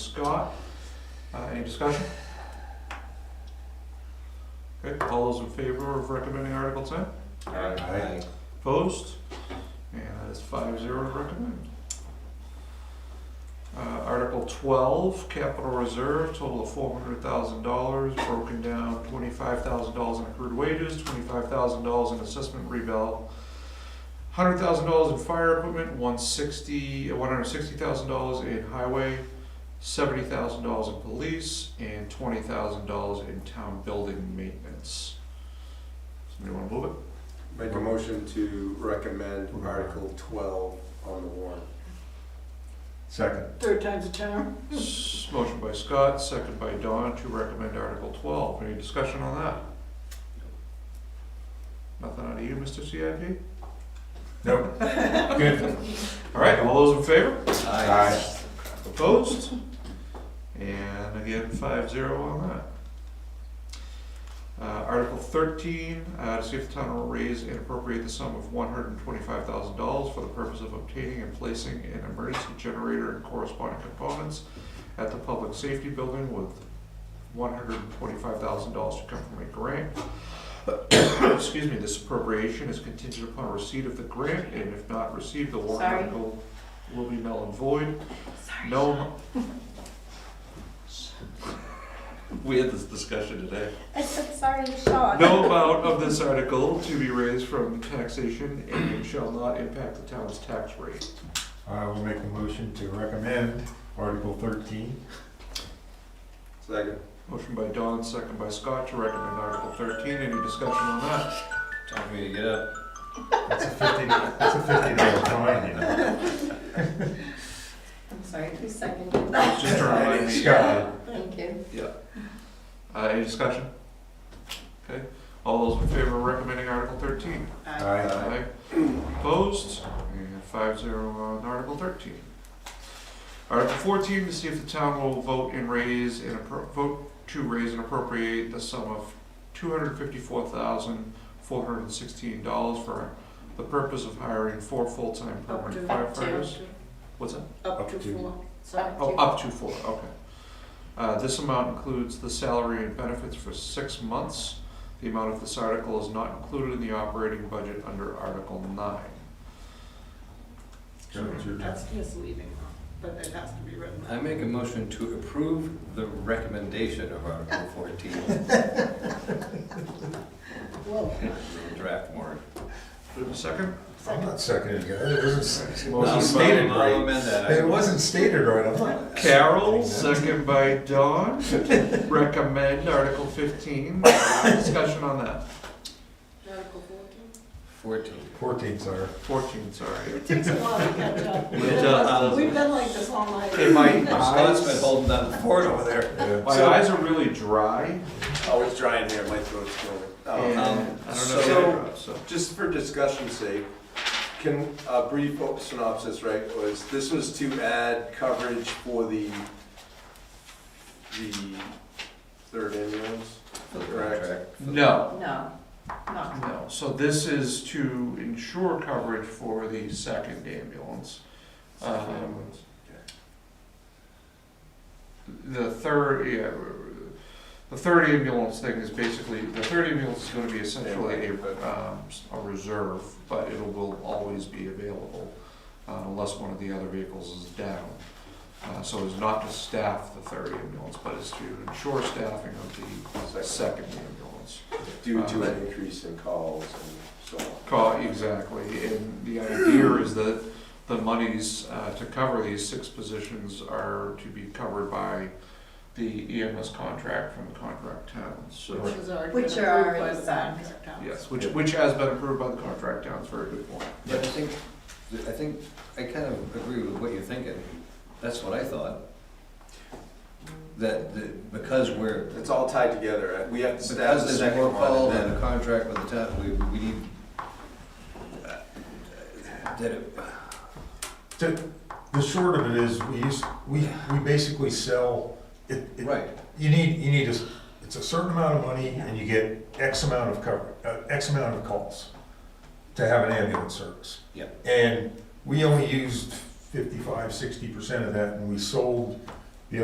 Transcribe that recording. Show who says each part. Speaker 1: Scott. Uh, Any discussion? Okay, all those in favor of recommending Article ten?
Speaker 2: Aye.
Speaker 1: Opposed? And that is five zero to recommend. Uh, Article twelve, capital reserve, total of four hundred thousand dollars, broken down twenty-five thousand dollars in accrued wages, twenty-five thousand dollars in assessment reval, hundred thousand dollars in fire equipment, one sixty, one hundred sixty thousand dollars in highway, seventy thousand dollars in police, and twenty thousand dollars in town building maintenance. Somebody wanna move it?
Speaker 2: Make a motion to recommend Article twelve on the warrant.
Speaker 3: Second.
Speaker 4: Third time's a charm.
Speaker 1: S- Motion by Scott, second by Don to recommend Article twelve. Any discussion on that? Nothing out of you, Mr. CIP?
Speaker 3: Nope. Good.
Speaker 1: All right, all those in favor?
Speaker 3: Aye.
Speaker 1: Opposed? And again, five zero on that. Uh, Article thirteen, uh, to see if the town will raise and appropriate the sum of one hundred and twenty-five thousand dollars for the purpose of obtaining and placing an emergency generator and corresponding components at the public safety building with one hundred and twenty-five thousand dollars to come from a grant. Excuse me, this appropriation is contingent upon receipt of the grant, and if not received, the warrant
Speaker 5: Sorry.
Speaker 1: article will be null and void. No. mo- We had this discussion today.
Speaker 5: I'm sorry, Sean.
Speaker 1: No amount of this article to be raised from taxation and shall not impact the town's tax rate.
Speaker 3: I will make a motion to recommend Article thirteen.
Speaker 2: Second.
Speaker 1: Motion by Don, second by Scott to recommend Article thirteen. Any discussion on that?
Speaker 6: Time for me to get up.
Speaker 3: That's a fifty, that's a fifty dollar fine, you know.
Speaker 5: I'm sorry, who seconded that?
Speaker 1: Just to remind me.
Speaker 3: Scott.
Speaker 5: Thank you.
Speaker 1: Uh, any discussion? Okay, all those in favor of recommending Article thirteen?
Speaker 4: Uh,
Speaker 3: Aye.
Speaker 1: Aye. Opposed? And five zero on Article thirteen. Article fourteen, to see if the town will vote and raise and appro, vote to raise and appropriate the sum of two hundred fifty-four thousand, four hundred and sixteen dollars for the purpose of hiring four full-time permanent
Speaker 5: Up to.
Speaker 1: firefighters. What's that?
Speaker 4: Up to
Speaker 3: Up to.
Speaker 4: four.
Speaker 5: Sorry.
Speaker 1: Oh, up to four, okay. Uh, this amount includes the salary and benefits for six months. The amount of this article is not included in the operating budget under Article nine.
Speaker 3: Joe, it's your turn.
Speaker 4: That's misleading, but it has to be written.
Speaker 6: I make a motion to approve the recommendation of Article fourteen,
Speaker 4: Whoa.
Speaker 6: draft warrant.
Speaker 1: Do we have a second?
Speaker 3: I'm not seconding it. It wasn't, it
Speaker 1: Well,
Speaker 3: wasn't
Speaker 1: it's
Speaker 3: stated
Speaker 6: I'll
Speaker 3: right.
Speaker 6: amend that.
Speaker 3: It wasn't stated right. I'm not.
Speaker 1: Carol, second by Don, recommend Article fifteen. Uh, Discussion on that.
Speaker 4: Article fourteen.
Speaker 6: Fourteen.
Speaker 3: Fourteen, sir.
Speaker 1: Fourteen, sorry.
Speaker 4: It takes a while to catch up.
Speaker 1: It does.
Speaker 4: We've been like this all night.
Speaker 1: Okay, my
Speaker 6: Scott's been
Speaker 1: eyes,
Speaker 6: holding down the fort over there.
Speaker 3: Yeah.
Speaker 1: my eyes are really dry
Speaker 2: Oh, it's dry in here, my throat's going.
Speaker 3: Oh.
Speaker 1: and
Speaker 2: Um,
Speaker 1: I
Speaker 6: um,
Speaker 1: don't know if
Speaker 2: so-
Speaker 1: they're dry, so.
Speaker 2: Just for discussion's sake, can, a brief synopsis, right, was, this was to add coverage for the, the third ambulance?
Speaker 6: For the
Speaker 2: Correct.
Speaker 6: contract. for the-
Speaker 1: No,
Speaker 5: No, no.
Speaker 1: No, so this is to ensure coverage for the second ambulance.
Speaker 6: Uh-huh.
Speaker 1: Um, The third, yeah, the third ambulance thing is basically, the third ambulance is gonna be essentially a, um, a reserve, but it will always be available uh, unless one of the other vehicles is down. Uh, so it's not to staff the third ambulance, but it's to ensure staffing of the second ambulance.
Speaker 2: Due
Speaker 6: Uh-huh.
Speaker 2: to an increase in calls and so on.
Speaker 1: Call, exactly, and the idea is that the monies uh, to cover these six positions are to be covered by the EMS contract from the contract towns, so.
Speaker 4: Which is already.
Speaker 5: Which
Speaker 4: been
Speaker 5: are
Speaker 4: approved by
Speaker 5: already
Speaker 4: the
Speaker 5: signed.
Speaker 4: contract house.
Speaker 1: Yes, which, which has been approved by the contract towns, very good point.
Speaker 6: But I think, I think, I kind of agree with what you're thinking. That's what I thought. That, that because we're,
Speaker 2: It's all tied together, we have to staff the
Speaker 6: because there's
Speaker 2: second
Speaker 6: more call
Speaker 2: one,
Speaker 6: than a
Speaker 2: and then,
Speaker 6: contract with the town, we, we need. uh, That it,
Speaker 3: The the short of it is, we use, we, we basically sell, it, it,
Speaker 6: right,
Speaker 3: you need, you need, a s- it's a certain amount of money and you get X amount of cover, uh, X amount of calls to have an ambulance service.
Speaker 6: Yep.
Speaker 3: And we only used fifty-five, sixty percent of that and we sold